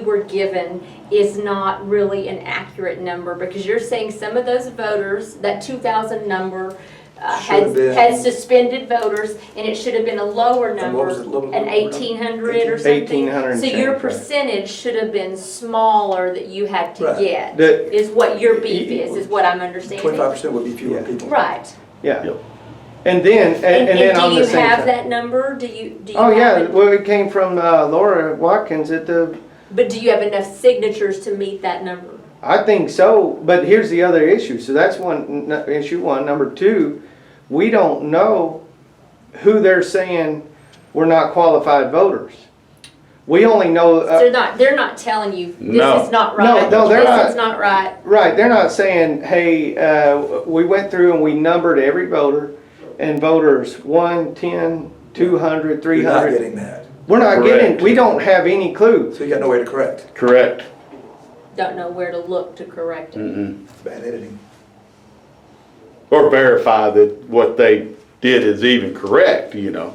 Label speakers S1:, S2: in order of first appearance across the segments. S1: were given is not really an accurate number because you're saying some of those voters, that 2,000 number uh,
S2: Should have
S1: had
S2: been-
S1: had suspended voters and it should have been a lower
S2: And what
S1: number,
S2: was it, little?
S1: an 1,800 or something.
S3: 1,800 and
S1: So your
S3: change, right.
S1: percentage should have been smaller that you had to
S2: Right.
S1: get,
S3: The-
S1: is what your beef
S3: Y-
S1: is, is what I'm understanding.
S2: Twenty-five percent would be fewer
S3: Yeah.
S2: people.
S1: Right.
S3: yeah. And then, and
S1: And
S3: and then
S1: and
S3: on
S1: do
S3: the
S1: you
S3: same
S1: have
S3: time.
S1: that number? Do you, do you
S3: Oh,
S1: have
S3: yeah,
S1: it?
S3: well, it came from uh, Laura Watkins at the,
S1: But do you have enough signatures to meet that number?
S3: I think so, but here's the other issue. So that's one, n- issue one. Number two, we don't know who they're saying were not qualified voters. We only know, uh,
S1: They're not, they're not telling you,
S4: No.
S1: this is not
S3: No,
S1: right,
S3: no, they're
S1: this is
S3: not.
S1: not right.
S3: Right, they're not saying, hey, uh, we went through and we numbered every voter, and voters one, ten, two hundred, three
S2: You're not
S3: hundred.
S2: getting that.
S3: We're not
S4: Correct.
S3: getting, we don't have any clue.
S2: So you got no way to correct.
S4: Correct.
S1: Don't know where to look to correct it.
S2: It's bad editing.
S4: Or verify that what they did is even correct, you know.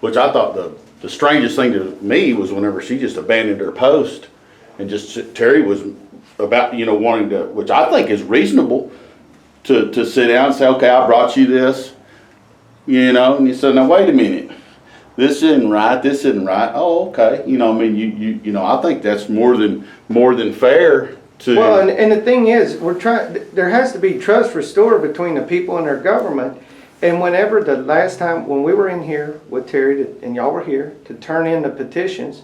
S4: Which I thought the, the strangest thing to me was whenever she just abandoned her post and just Terry was about, you know, wanting to, which I think is reasonable to, to sit down and say, okay, I brought you this, you know, and you said, now wait a minute. This isn't right. This isn't right. Oh, okay. You know, I mean, you, you, you know, I think that's more than, more than fair to.
S3: Well, and, and the thing is, we're trying, there has to be trust restored between the people and their government. And whenever the last time, when we were in here with Terry, to- and y'all were here, to turn in the petitions,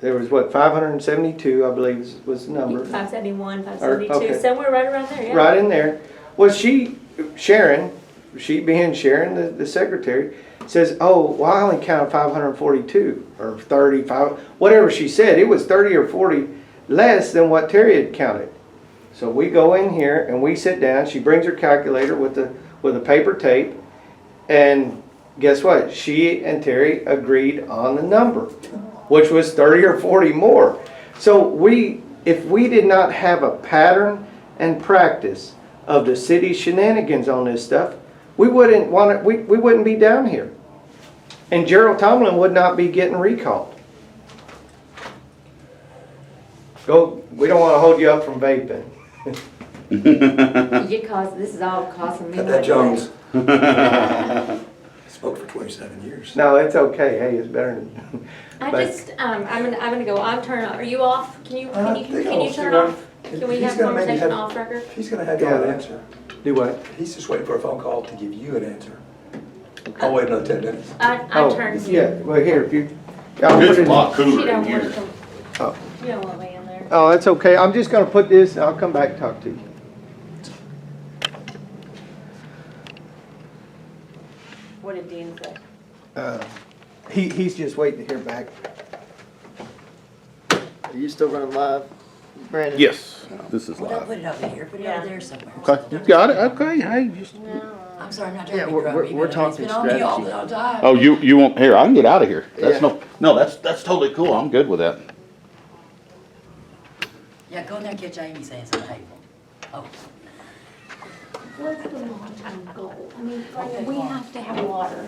S3: there was what, five hundred and seventy-two, I believe was- was the number.
S1: Five seventy-one, five
S3: Mm-hmm. Or-
S1: seventy-two,
S3: okay.
S1: somewhere right around there, yeah.
S3: right in there. Well, she, Sharon, she being Sharon, the, the secretary, says, oh, well, I only counted five hundred and forty-two, or thirty-five, whatever she said, it was thirty or forty less than what Terry had counted. So we go in here and we sit down, she brings her calculator with the, with a paper tape, and guess what? She and Terry agreed on the number, which was thirty or forty more. So we, if we did not have a pattern and practice of the city shenanigans on this stuff, we wouldn't want it, we, we wouldn't be down here. And Gerald Tomlin would not be getting recalled. Go, we don't wanna hold you up from vaping.
S1: You cause, this is all causing me.
S2: Cut that
S1: headache.
S2: Jones. Spoke for twenty-seven years.
S3: No, it's okay, hey, it's better than.
S1: I
S3: but-
S1: just, um, I'm gonna, I'm gonna go, I'm turning, off. are you off? Can you,
S2: I
S1: can you,
S2: think
S1: can you
S2: I'll
S1: turn
S2: see what-
S1: off? Can we
S2: He's
S1: have
S2: gonna make me
S1: conversation
S2: have-
S1: off record?
S2: He's gonna have you an
S3: Yeah.
S2: answer.
S3: Do what?
S2: He's just waiting for a phone call to give you an answer. I'll wait another ten minutes.
S1: I, I
S3: Oh,
S1: turned.
S3: Yeah, well, here, if you. I'll put
S4: It's a
S3: it-
S4: lot
S1: She
S4: cooler in
S1: don't
S4: here.
S1: want to,
S3: Oh.
S1: you don't want me in there.
S3: Oh, that's okay. I'm just gonna put this, and I'll come back and talk to you.
S1: What did Dean say?
S3: Uh, He, he's just waiting to hear back. Are you still running live, Brandon?
S4: Yes, this is
S5: Well, don't put it over here, put it
S1: Yeah.
S5: over there somewhere.
S4: Okay, you got it, okay, hey, just.
S5: I'm sorry, I'm not
S3: Yeah,
S5: trying to be
S3: we're-
S5: grumpy,
S3: we're- we're
S5: but it's
S3: talking
S5: been on me all
S3: strategy.
S5: the whole time.
S4: Oh, you, you won't, here, I can get out of here, that's
S3: Yeah.
S4: no, no, that's, that's totally cool, I'm good with that. Oh.
S5: Yeah, go in there and catch Amy saying something hateful. Oh,
S1: What's the long-term goal? I mean,
S5: like, we have
S1: to have water.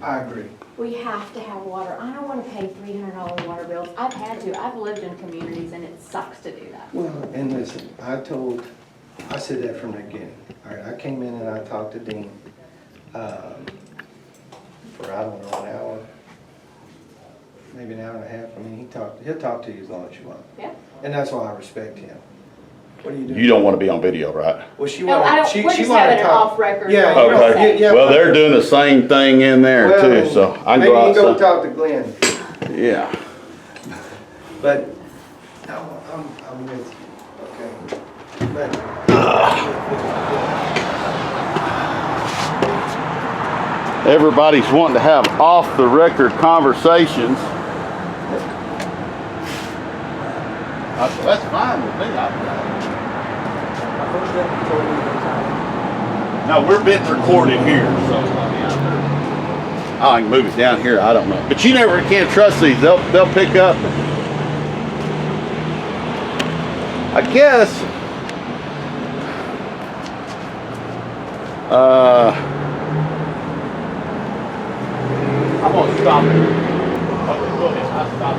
S3: I agree.
S1: We have to have water. I don't wanna pay three hundred dollar water bills. I've had to. I've lived in communities and it sucks to do that.
S3: Well, and listen, I told, I said that from the beginning. All right, I came in and I talked to Dean, um, for, I don't know, an hour, maybe an hour and a half. I mean, he talked, he'll talk to you as long as you want.
S1: Yeah.
S3: And that's why I respect him. What are you doing?
S4: You don't wanna be on video, right?
S3: Well, she
S1: No, I
S3: wanted,
S1: don't-
S3: she,
S1: we're
S3: she
S1: just
S3: wanted
S1: having
S3: to
S1: an
S3: talk.
S1: off record
S3: Yeah,
S1: conversation.
S3: you don't-
S4: Oh, Okay,
S3: yeah, yeah,
S4: well, they're doing the same thing in there
S3: Well,
S4: too, so I can
S3: Maybe you
S4: go
S3: go
S4: outside.
S3: talk to Glenn,
S4: Yeah,
S3: but no, I'm, I'm with you, okay? But
S4: everybody's wanting to have off-the-record conversations. I- That's fine with me, I,
S2: My first deputy told me one time,
S4: no, we're being recorded here, so, I mean, I I can move it down here, I don't know, but you never can trust these, they'll, they'll pick up. I guess. Uh. I'm gonna stop it.